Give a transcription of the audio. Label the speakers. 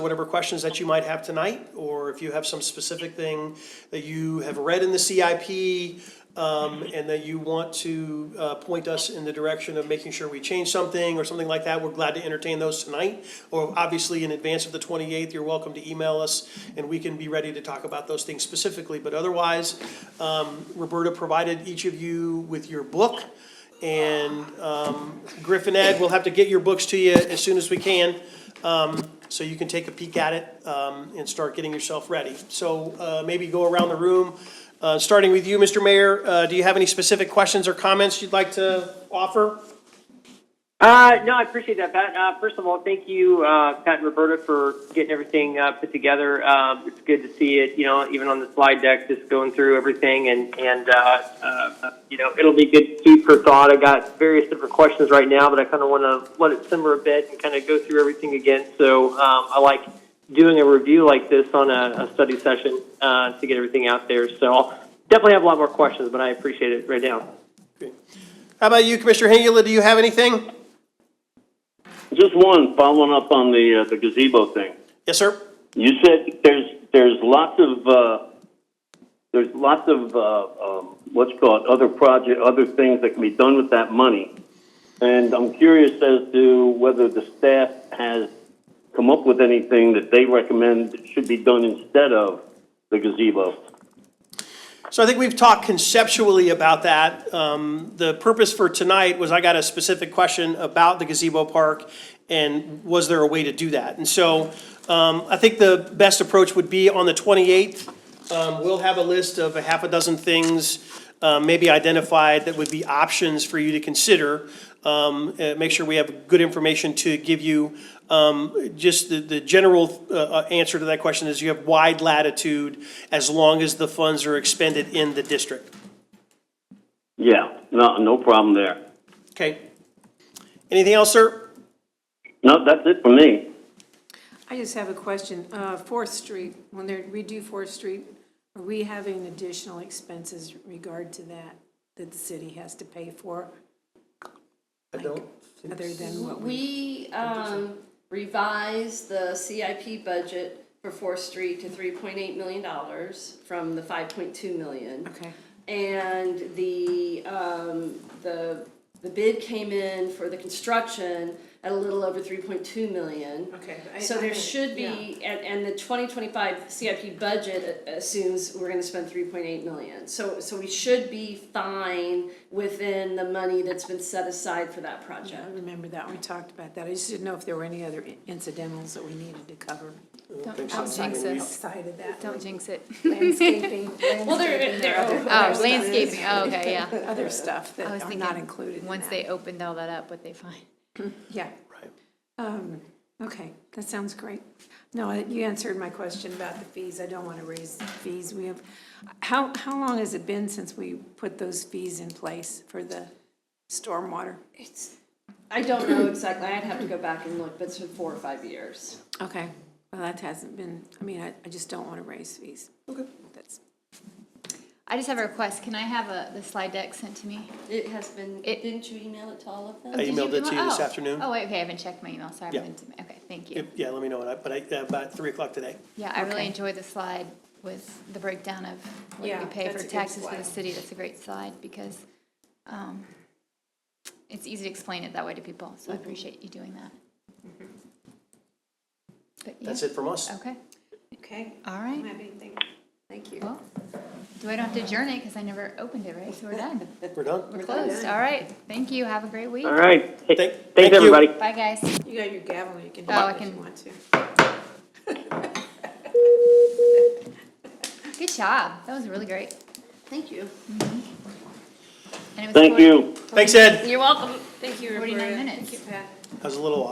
Speaker 1: whatever questions that you might have tonight, or if you have some specific thing that you have read in the CIP, um, and that you want to, uh, point us in the direction of making sure we change something or something like that, we're glad to entertain those tonight. Or obviously, in advance of the twenty-eighth, you're welcome to email us, and we can be ready to talk about those things specifically. But otherwise, um, Roberta provided each of you with your book, and, um, Griffin Ed, we'll have to get your books to you as soon as we can so you can take a peek at it um, and start getting yourself ready. So uh, maybe go around the room, uh, starting with you, Mr. Mayor. uh, Do you have any specific questions or comments you'd like to offer?
Speaker 2: Uh, no, I appreciate that, Pat. Uh, first of all, thank you, uh, Pat and Roberta, for getting everything uh, put together. Um, it's good to see it, you know, even on the slide deck, just going through everything, and and uh, uh, you know, it'll be good food for thought. I got various different questions right now, but I kind of want to let it simmer a bit and kind of go through everything again. So um, I like doing a review like this on a, a study session uh, to get everything out there. So I'll definitely have a lot more questions, but I appreciate it right now.
Speaker 1: How about you, Commissioner Hengula, do you have anything?
Speaker 3: Just one, following up on the, uh, the gazebo thing.
Speaker 1: Yes, sir?
Speaker 3: You said there's, there's lots of, uh, there's lots of, uh, um, what's called, other project, other things that can be done with that money. And I'm curious as to whether the staff has come up with anything that they recommend should be done instead of the gazebo.
Speaker 1: So I think we've talked conceptually about that. Um, The purpose for tonight was I got a specific question about the gazebo park and was there a way to do that? And so um, I think the best approach would be on the 28th. Um, We'll have a list of a half a dozen things, uh, maybe identified, that would be options for you to consider. Um, uh, Make sure we have good information to give you Um, just the, the general uh, uh, answer to that question is you have wide latitude as long as the funds are expended in the district.
Speaker 3: Yeah, no, no problem there.
Speaker 1: Okay? Anything else, sir?
Speaker 3: No, that's it for me.
Speaker 4: I just have a question. Uh, Fourth Street, when they redo Fourth Street, are we having additional expenses in regard to that, that the city has to pay for,
Speaker 1: I don't.
Speaker 4: other than what we?
Speaker 5: We um, revised the CIP budget for Fourth Street to three point eight million dollars from the five point two million.
Speaker 4: Okay,
Speaker 5: And the, um, the, the bid came in for the construction at a little over three point two million.
Speaker 4: Okay, I-
Speaker 5: So
Speaker 4: I-
Speaker 5: there should
Speaker 4: yeah.
Speaker 5: be, and, and the twenty twenty-five CIP budget a- assumes we're gonna spend three point eight million. So, so we should be fine within the money that's been set aside for that
Speaker 4: I
Speaker 5: project.
Speaker 4: remember that, we talked about that. I just didn't know if there were any other incidentals that we needed to cover
Speaker 6: Don't don't jinx it.
Speaker 4: outside of that.
Speaker 6: Don't jinx it.
Speaker 4: Landscaping,
Speaker 5: Well, there,
Speaker 4: landscaping,
Speaker 5: there,
Speaker 4: or
Speaker 5: oh,
Speaker 4: other-
Speaker 6: Oh, landscaping, oh, okay, yeah.
Speaker 4: other stuff
Speaker 6: I was
Speaker 4: that are not
Speaker 6: thinking,
Speaker 4: included in
Speaker 6: Once
Speaker 4: that.
Speaker 6: they opened all that up, what they find.
Speaker 4: Yeah. Right. Um, okay, that sounds great. No, I- you answered my question about the fees. I don't want to raise fees. We have, how, how long has it been since we put those fees in place for the stormwater?
Speaker 5: It's, I don't know exactly, I'd have to go back and look, but it's been four or five years.
Speaker 4: Okay, well, that hasn't been, I mean, I, I just don't want to raise fees. Okay. That's,
Speaker 6: I just have a request. Can I have a, the slide deck sent to me?
Speaker 5: It has been,
Speaker 6: It-
Speaker 5: didn't you email it to all of
Speaker 6: Oh,
Speaker 5: them?
Speaker 6: did
Speaker 1: emailed it to you this
Speaker 6: oh.
Speaker 1: afternoon.
Speaker 6: Oh, wait, okay, I haven't checked my email, sorry. I
Speaker 1: Yeah.
Speaker 6: haven't- Okay, thank you.
Speaker 1: Yeah, let me know, when I- but I, about three o'clock today.
Speaker 6: Yeah, I really
Speaker 4: Okay.
Speaker 6: enjoyed the slide with the breakdown of what
Speaker 4: Yeah,
Speaker 6: we pay
Speaker 4: that's
Speaker 6: for
Speaker 4: a good
Speaker 6: taxes for the
Speaker 4: slide.
Speaker 6: city. That's a great slide because um, it's easy to explain it that way to people, so I
Speaker 4: Mm-hmm.
Speaker 6: appreciate you doing that. But yeah,
Speaker 1: That's it from us.
Speaker 6: Okay,
Speaker 4: okay,
Speaker 6: all right.
Speaker 4: have anything. Thank you.
Speaker 6: Well, do I don't have to adjourn it because I never opened it, right? So we're done.
Speaker 1: We're done.
Speaker 6: We're closed. All right. Thank you. Have a great week.
Speaker 2: All right.
Speaker 1: Thank-
Speaker 2: Thanks,
Speaker 1: thank you.
Speaker 2: everybody.
Speaker 6: Bye, guys.
Speaker 4: You got your gavel, you can
Speaker 6: Oh,
Speaker 4: have
Speaker 6: I
Speaker 4: it if you
Speaker 6: can-
Speaker 4: want to.
Speaker 6: Good job. That was really great.
Speaker 5: Thank you.
Speaker 6: And it was
Speaker 3: Thank
Speaker 6: 40
Speaker 3: you.
Speaker 1: Thanks, Ed.
Speaker 5: You're welcome. Thank you,
Speaker 6: 49 minutes.
Speaker 1: That was a little off.